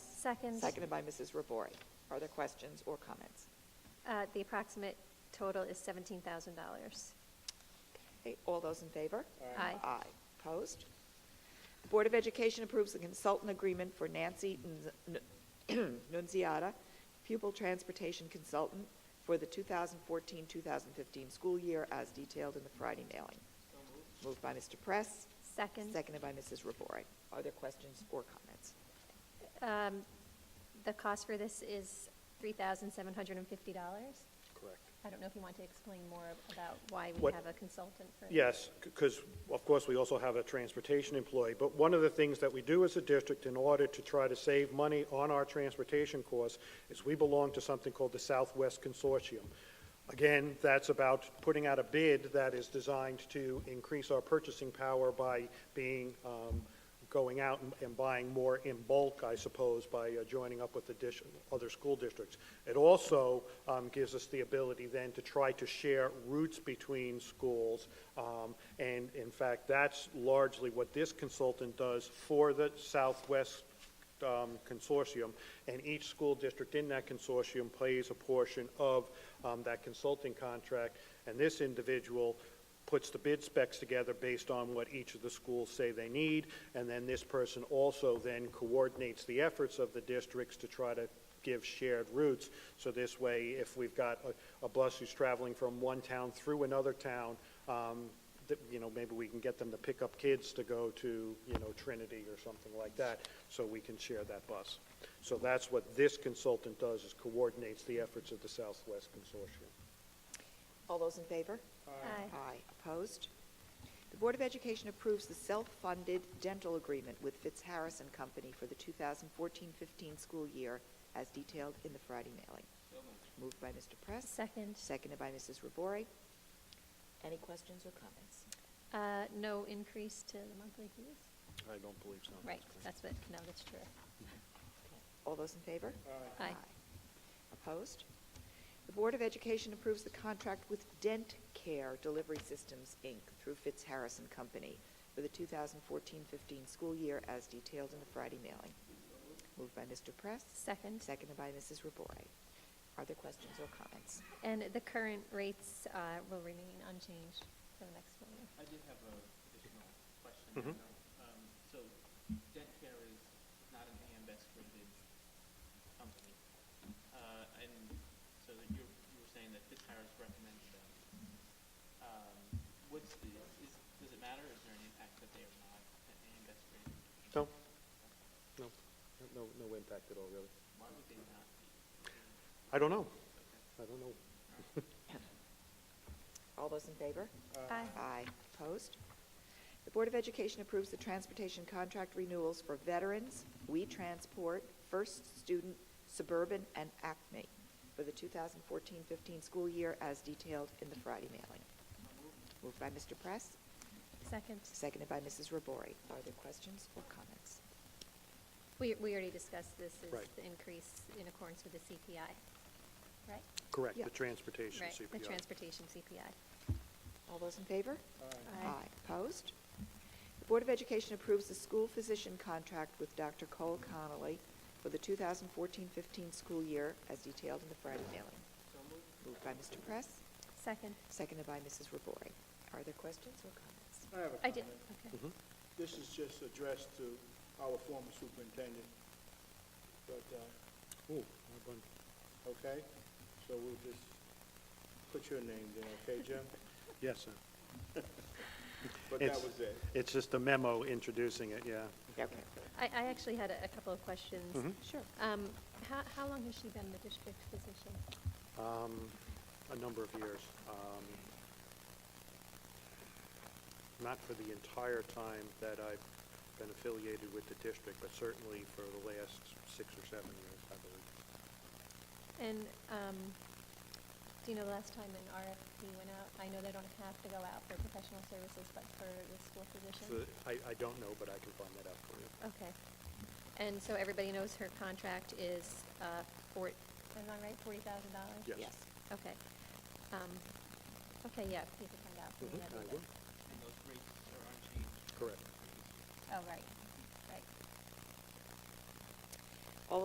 Second, Seconded by Mrs. Robori. Are there questions or comments? uh, the approximate total is $17,000. Okay, All those in favor? Aye. Aye. Aye. Opposed? The Board of Education approves the consultant agreement for Nancy Nunz- Nun- Nunziata, pupil transportation consultant for the 2014-2015 school year as detailed in the Friday mailing. Moved by Mr. Press, Second, seconded by Mrs. Robori. Are there questions or comments? um, the cost for this is $3,750. Correct. I don't know if you want to explain more about why we What- have a consultant for this. Yes, because of course, we also have a transportation employee. But one of the things that we do as a district in order to try to save money on our transportation costs is we belong to something called the Southwest Consortium. Again, that's about putting out a bid that is designed to increase our purchasing power by being, um, going out and- and buying more in bulk, I suppose, by uh, joining up with the dish, other school districts. It also um, gives us the ability then to try to share routes between schools. um, And in fact, that's largely what this consultant does for the Southwest um, consortium. And each school district in that consortium pays a portion of um, that consulting contract. And this individual puts the bid specs together based on what each of the schools say they need, and then this person also then coordinates the efforts of the districts to try to give shared routes. So this way, if we've got a, a bus who's traveling from one town through another town, um, that, you know, maybe we can get them to pick up kids to go to, you know, Trinity or something like that, so we can share that bus. So that's what this consultant does, is coordinates the efforts of the Southwest Consortium. All those in favor? Aye. Aye. Opposed? The Board of Education approves the self-funded dental agreement with Fitz Harris and Company for the 2014-15 school year as detailed in the Friday mailing. Moved by Mr. Press, Second, seconded by Mrs. Robori. Any questions or comments? uh, no increase to the monthly fees? I don't believe so. Right, that's what, no, that's true. All those in favor? Aye. Opposed? The Board of Education approves the contract with Dent Care Delivery Systems, Inc. through Fitz Harris and Company for the 2014-15 school year as detailed in the Friday mailing. Moved by Mr. Press, Second, seconded by Mrs. Robori. Are there questions or comments? and the current rates uh, will remain unchanged for the next one. I did have a additional question. Um, So debt care is not an AM Best rated company. Uh, And so that you you were saying that Fitzharris recommends them. Um, What's the, is, does it matter? Is there an impact that they are not an AM Best rated? No, no, no, no impact at all, really. Why would they not be? I don't know. I don't know. All those in favor? Aye. Aye. Opposed? The Board of Education approves the transportation contract renewals for veterans, We Transport, First Student, Suburban, and Acme for the 2014-15 school year as detailed in the Friday mailing. Moved by Mr. Press, Second, seconded by Mrs. Robori. Are there questions or comments? we, we already discussed this is Right. the increase in accordance with the CPI, right? Correct, Yeah. the transportation Right, CPI. the transportation CPI. All those in favor? Aye. Opposed? The Board of Education approves the school physician contract with Dr. Cole Connolly for the 2014-15 school year as detailed in the Friday mailing. Moved by Mr. Press, Second, seconded by Mrs. Robori. Are there questions or comments? I have a I did, comment. okay. Mm-hmm. This is just addressed to our former superintendent, but, uh, Ooh, I bun- okay? So we'll just put your name there, okay, Jim? Yes, sir. But that It's- was it. It's just a memo introducing it, yeah. Okay, I, I actually had a a couple of questions. Mm-hmm. sure. Um, How, how long has she been the district physician? Um, A number of years. um, Not for the entire time that I've been affiliated with the district, but certainly for the last six or seven years, I believe. And um, do you know the last time an RFP went out? I know they don't have to go out for professional services, but for the school physician? So, I, I don't know, but I can find that out for you. Okay. And so everybody knows her contract is, uh, four, am I right, forty thousand dollars? Yes. Yes. Okay. Um, Okay, yeah, if you could find out. for me, Mhm, that'd be I good. will. And those rates are unchanged? Correct. Oh, right,